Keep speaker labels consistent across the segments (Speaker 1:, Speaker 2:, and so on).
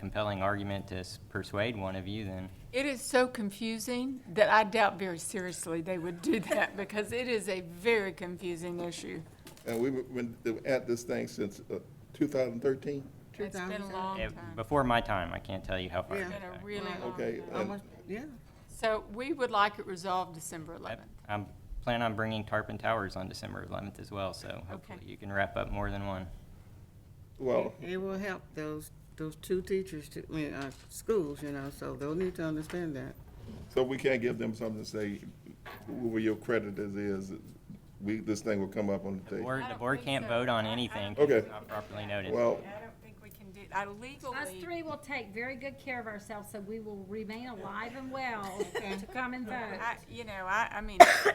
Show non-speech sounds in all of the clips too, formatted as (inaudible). Speaker 1: compelling argument to s- persuade one of you, then.
Speaker 2: It is so confusing that I doubt very seriously they would do that because it is a very confusing issue.
Speaker 3: And we've been at this thing since uh, 2013?
Speaker 2: It's been a
Speaker 4: 2000.
Speaker 2: long
Speaker 1: Eh,
Speaker 2: time.
Speaker 1: Before my time, I can't tell you how far.
Speaker 4: Yeah.
Speaker 1: it
Speaker 2: Been
Speaker 1: goes
Speaker 2: a
Speaker 1: back.
Speaker 2: really long
Speaker 3: Okay,
Speaker 2: time.
Speaker 3: and
Speaker 4: Almost, yeah.
Speaker 2: So we would like it resolved December 11th.
Speaker 1: I plan on bringing Tarpon Towers on December 11th as well, so hopefully you can wrap up more than one.
Speaker 3: well,
Speaker 4: It it will help those, those two teachers to, I mean, uh, schools, you know, so they'll need to understand that.
Speaker 3: so we can't give them something to say, whoever your creditors is, we, this thing will come up on the
Speaker 1: The
Speaker 3: table.
Speaker 1: board, the
Speaker 2: I don't
Speaker 1: board
Speaker 2: think
Speaker 1: can't
Speaker 2: so.
Speaker 1: vote on
Speaker 2: I- I
Speaker 1: anything
Speaker 2: don't
Speaker 1: 'cause it's
Speaker 3: think
Speaker 1: not properly noted.
Speaker 3: Well,
Speaker 2: I don't think we can do, I
Speaker 5: Us
Speaker 2: legally,
Speaker 5: three will take very good care of ourselves, so we will remain alive and well to come and vote.
Speaker 2: I, you know, I, I mean, it's a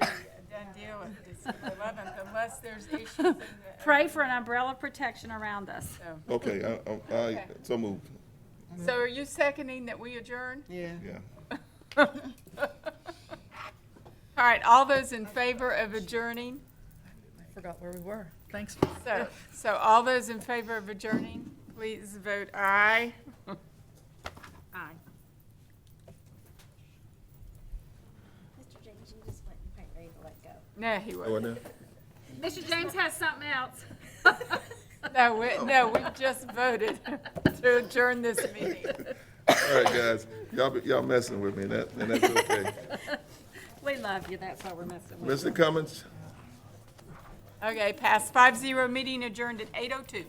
Speaker 2: done deal with December 11th unless there's issues in the,
Speaker 5: Pray for an umbrella of protection around us.
Speaker 2: so.
Speaker 3: okay, I- I- I, so moved,
Speaker 2: So are you seconding that we adjourn?
Speaker 4: Yeah.
Speaker 3: yeah.
Speaker 2: (laughs) All right, all those in favor of adjourning?
Speaker 6: Forgot where we were. Thanks.
Speaker 2: So, so all those in favor of adjourning, please vote aye. (laughs)
Speaker 5: Aye.
Speaker 7: Mr. James, you just went quite ready to let go.
Speaker 2: No, he wasn't.
Speaker 5: Mr. James has something else.
Speaker 2: No, we, no, we just voted (laughs) to adjourn this meeting.
Speaker 3: All right, guys, y'all, be- y'all messing with me, that, and that's okay.
Speaker 5: We love you, that's why we're messing with you.
Speaker 3: Mr. Cummins?
Speaker 2: Okay, pass five zero, meeting adjourned at eight oh two.